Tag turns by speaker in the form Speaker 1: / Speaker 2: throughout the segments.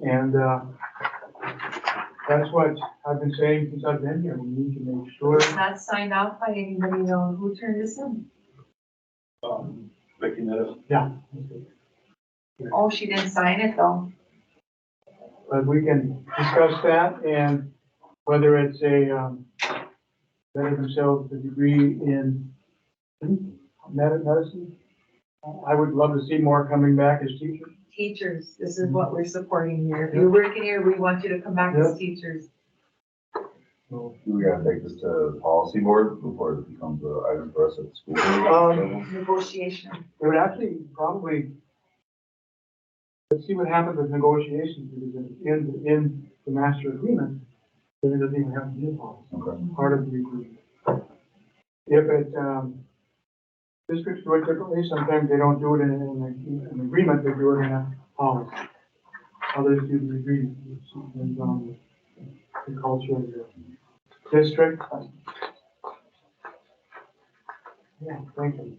Speaker 1: And, uh, that's what I've been saying since I've been here, we need to make sure,
Speaker 2: Not signed off by anybody on who turned this in.
Speaker 1: um,
Speaker 3: Picking that up.
Speaker 1: yeah.
Speaker 2: Oh, she didn't sign it though.
Speaker 1: But we can discuss that and whether it's a, um, better themselves a degree in med- medicine. I would love to see more coming back as teachers.
Speaker 2: Teachers, this is what we're supporting here. If you're working here, we want you to come back as teachers.
Speaker 1: So,
Speaker 4: Do we gotta take this to the policy board before it becomes an item for us at the school?
Speaker 1: Um,
Speaker 2: Negotiation.
Speaker 1: It would actually probably, let's see what happens with negotiations, because in, in the master agreement, then it doesn't even have to be a policy.
Speaker 4: Okay.
Speaker 1: part of the agreement. If it, um, districts do it differently, sometimes they don't do it in an, an agreement, they do it in a policy. Others do the agreement, depends on the culture of the district. Yeah, thank you.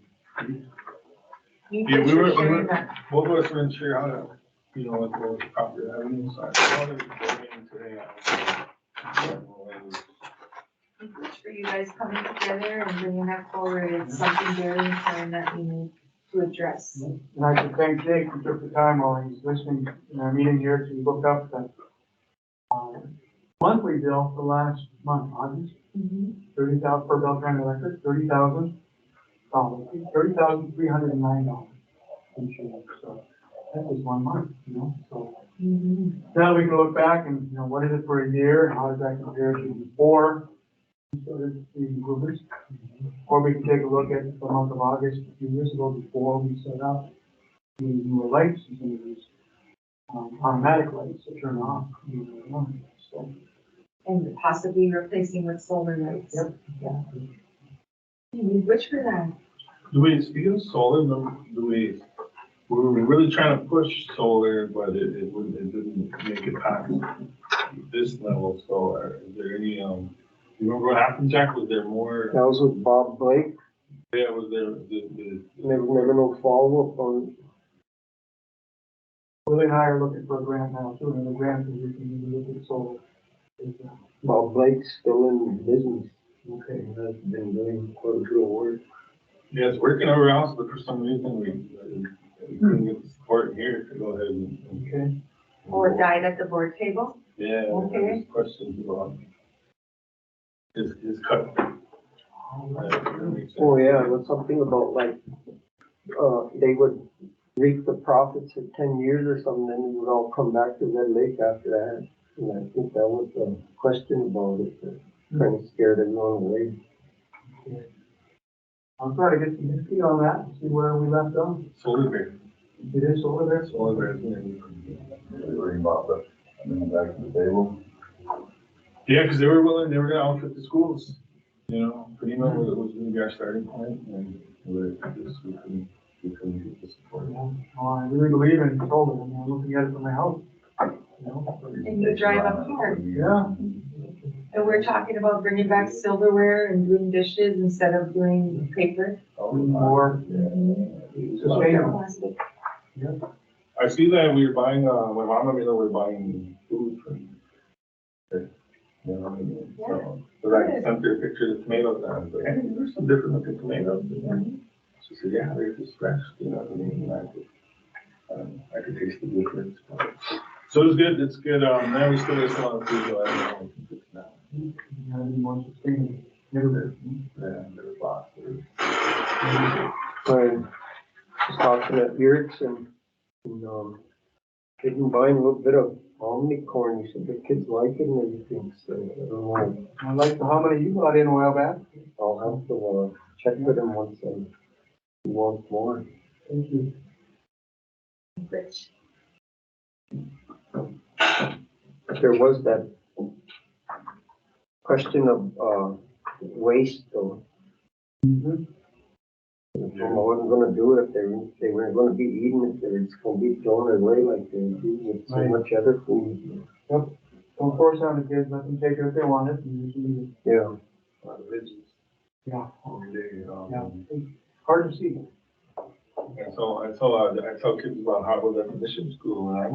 Speaker 2: You
Speaker 3: Yeah,
Speaker 2: guys
Speaker 3: we
Speaker 2: are
Speaker 3: were- we
Speaker 2: sharing
Speaker 3: were-
Speaker 2: that.
Speaker 3: What was for sure how to, you know, with the property revenue side? How did it go in today?
Speaker 2: It's For you guys coming together and bringing that forward, it's something very important that we need to address.
Speaker 1: And I should thank Jake who took the time while he's listening in our meeting here to look up the uh, monthly bill for last month, August.
Speaker 2: Mhm.
Speaker 1: thirty thousand, for Beltran Electric, thirty thousand dollars, thirty thousand three hundred and nine dollars. Insurance, so that was one month, you know, so.
Speaker 2: Mhm.
Speaker 1: Now we can look back and, you know, what is it for a year, how does that compare to before? So there's the improvements. Or we can take a look at the month of August, a few years ago, before we set up the newer lights and some of these um, automatic lights that turn off. you know, So,
Speaker 2: And possibly replacing with solar lights.
Speaker 1: Yep.
Speaker 2: Yeah. You need which for that?
Speaker 3: Do we, speaking of solar, remember, do we, we were really trying to push solar, but it, it wouldn't, it didn't make it past this level of solar. Is there any, um, you remember what happened, Jack? Was there more,
Speaker 5: That was with Bob Blake,
Speaker 3: yeah, was there, the, the,
Speaker 5: and there was never no follow-up on,
Speaker 1: Willie and I are looking for a grant now, too, and the grant is, we can look at solar. Is, uh,
Speaker 5: Bob Blake's still in business.
Speaker 1: Okay.
Speaker 5: And has been doing quite a bit of work.
Speaker 3: yeah, it's working over else, but for some reason we, we couldn't get the support here to go ahead and. and-
Speaker 1: Okay,
Speaker 2: Or died at the board table?
Speaker 3: Yeah,
Speaker 2: Okay.
Speaker 3: there's questions about his, his cut.
Speaker 5: Oh, yeah, it was something about like, uh, they would reap the profits in ten years or something, then it would all come back to Red Lake after that. And I think that was the question about it, that kind of scared everyone away.
Speaker 1: I'll try to get some history on that, and see where we left off.
Speaker 3: Solar bear,
Speaker 1: It is over there, so.
Speaker 3: solar bear's name.
Speaker 4: Really worrying about that, bringing it back to the table.
Speaker 3: Yeah, cause they were willing, they were gonna outfit the schools, you know, pretty much was, was gonna be our starting point and we just, we couldn't, we couldn't get the support.
Speaker 1: Uh, I really believe in solar, I mean, I'm looking at it from my house. You know,
Speaker 2: And you drive up here.
Speaker 1: Yeah.
Speaker 2: And we're talking about bringing back silverware and doing dishes instead of doing paper.
Speaker 1: More sustainable.
Speaker 2: Plastic.
Speaker 3: I see that we were buying, uh, my mom and me, we were buying food from. You know, I mean, so, but I sent her a picture of the tomatoes and I was like, hey, there's some different looking tomatoes. in there."
Speaker 1: Mm-hmm.
Speaker 3: She said, yeah, they're just fresh, you know, what I mean, and I could, um, I could taste the difference. So it's good, it's good, um, now we still have some on food, though, I don't know. if we can fix that.
Speaker 1: You gotta be more sustainable. Never
Speaker 3: Yeah, there's lots, there's
Speaker 5: I was talking at Eric's and, and, um, getting by a little bit of omnicorn, he said the kids like it and everything, so I don't know.
Speaker 1: I like the how many you brought in a while back.
Speaker 5: I'll have to, uh, check with him once I want more.
Speaker 1: Thank you.
Speaker 2: Rich.
Speaker 5: There was that question of, uh, waste though.
Speaker 1: Mhm.
Speaker 5: If I wasn't gonna do it, if they, if they weren't gonna be eaten, if they were just gonna be thrown away like they do with so
Speaker 1: Right.
Speaker 5: much other food.
Speaker 1: Don't force on the kids, let them take it if they want it, and you can leave it.
Speaker 5: Yeah.
Speaker 3: a lot of veggies.
Speaker 1: Yeah,
Speaker 3: over there, um,
Speaker 1: yeah. Hard to see.
Speaker 3: And so I tell, uh, I tell kids about Harvard Definition School and I